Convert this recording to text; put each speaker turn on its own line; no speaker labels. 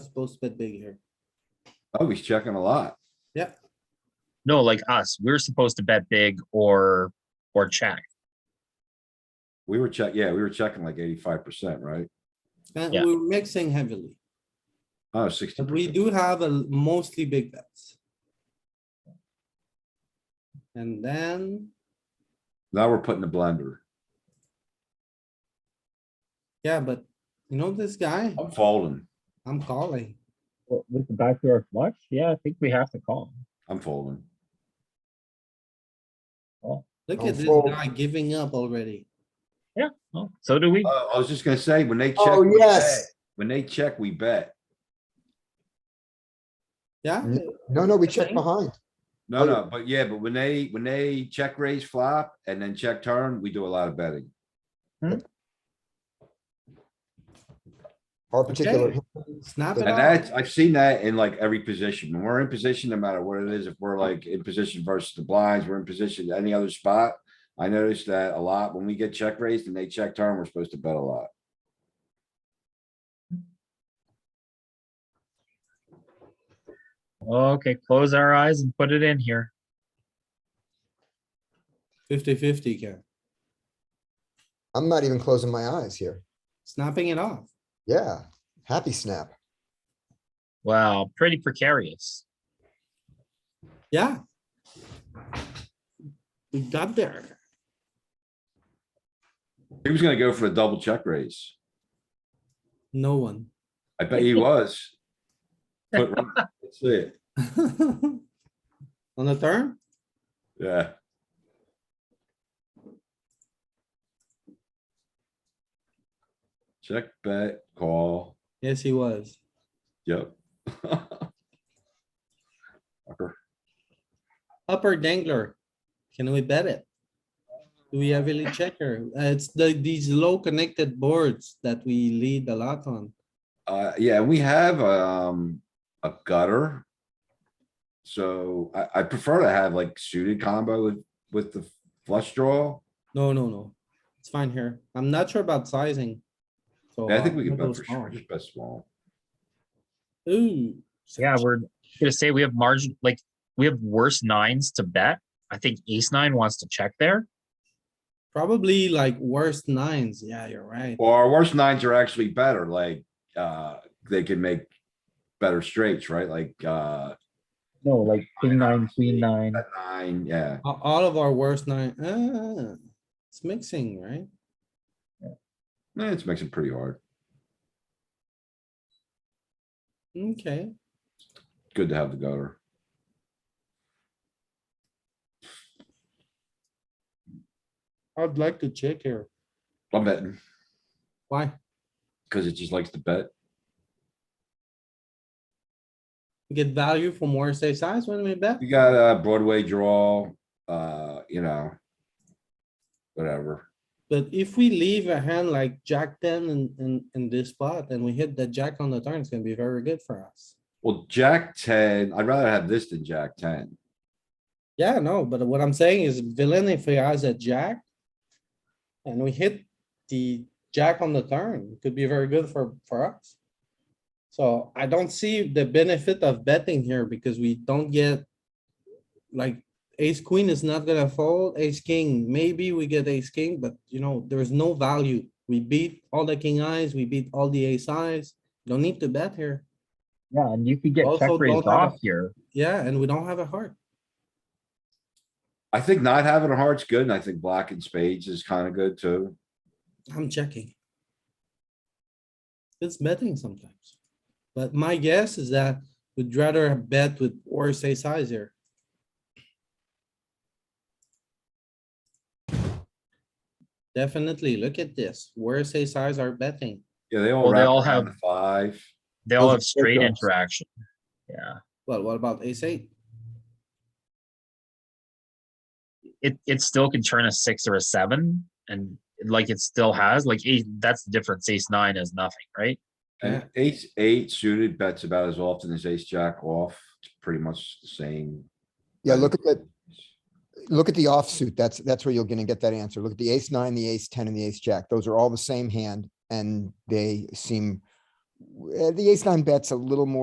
supposed to bet big here.
Oh, he's checking a lot.
No, like us, we're supposed to bet big or, or check.
We were check, yeah, we were checking like eighty-five percent, right?
And
Yeah.
we're mixing heavily,
Oh, sixty.
but we do have a l- mostly big bets. And then,
Now we're putting the blender.
yeah, but you know this guy,
I'm folding.
I'm calling.
With the backdoor flush, yeah, I think we have to call.
I'm folding.
Look
Don't
at this
fold.
guy giving up already.
Well, Oh, So do we.
Uh, I was just gonna say, when they check.
Oh,
we
yes.
bet. When they check, we bet.
Yeah,
Mm. No, no, we check
Okay.
behind.
No, no, but yeah, but when they, when they check raise flop and then check turn, we do a lot of betting.
Our particular,
Okay. snap it
And
out.
that's, I've seen that in like every position. When we're in position, no matter what it is, if we're like in position versus the blinds, we're in position, any other spot. I noticed that a lot. When we get check raised and they check turn, we're supposed to bet a lot.
Okay, close our eyes and put it in here.
Fifty fifty here,
I'm not even closing my eyes here.
snapping it off.
Yeah, happy snap.
Wow, pretty precarious.
Yeah. We got there.
He was gonna go for a double check raise.
No one.
I bet he was. But, let's see it.
On the turn,
Yeah, check, bet, call,
yes, he was.
yep. Fucker.
Upper dangler. Can we bet it? Do we have really checker? Uh, It's the, these low connected boards that we lead a lot on.
Uh, yeah, we have, um, a gutter. So I, I prefer to have like suited combo with, with the flush draw.
No, no, no. It's fine here. I'm not sure about sizing. So uh,
Yeah, I think
I'll
we can
go
bet for
small.
sure, bet small.
Ooh,
Yeah, we're gonna say we have margin, like, we have worse nines to bet. I think ace nine wants to check there.
probably like worst nines. Yeah, you're right.
Or our worst nines are actually better, like, uh, they can make better straights, right? Like, uh,
No, like king nine, queen nine.
bet nine, yeah.
A- All of our worst nine, ah, it's mixing, right?
Eh, It makes it pretty hard.
Okay.
Good to have the gutter.
I'd like to check here.
I'm betting,
Why?
cause it just likes to bet.
We Get value from worst ace size when we bet?
You got a Broadway draw, uh, you know. Whatever.
But if we leave a hand like jack ten in, in, in this spot and we hit the jack on the turn, it's gonna be very good for us.
Well, Jack ten, I'd rather have this than Jack ten.
Yeah, no, but what I'm saying is villain if he has a jack. And we hit the jack on the turn, it could be very good for, for us. So I don't see the benefit of betting here because we don't get. Like ace queen is not gonna fold, ace king, maybe we get ace king, but you know, there is no value. We beat all the king eyes, we beat all the ace eyes, don't need to bet here.
Yeah, and you could get
Also
check
don't
raised
have a-
off here.
Yeah, and we don't have a heart.
I think not having a heart's good, and I think blocking spades is kinda good too.
I'm checking. It's betting sometimes, but my guess is that we'd rather bet with worse ace size here. Definitely, look at this, worse ace size are betting,
Yeah, they all.
Well, they
wrap
all
around
have-
the Five.
They all
Those
have
are
straight
breakups.
interaction. Yeah,
well, what about ace eight?
it, it still can turn a six or a seven and like it still has, like, ace. that's the difference. Ace nine is nothing, right?
And ace eight suited bets about as often as ace jack off. It's pretty much the same.
Yeah, look at that. Look at the offsuit. That's, that's where you're gonna get that answer. Look at the ace nine, the ace ten and the ace jack. Those are all the same hand and they seem uh, the ace nine bets a little more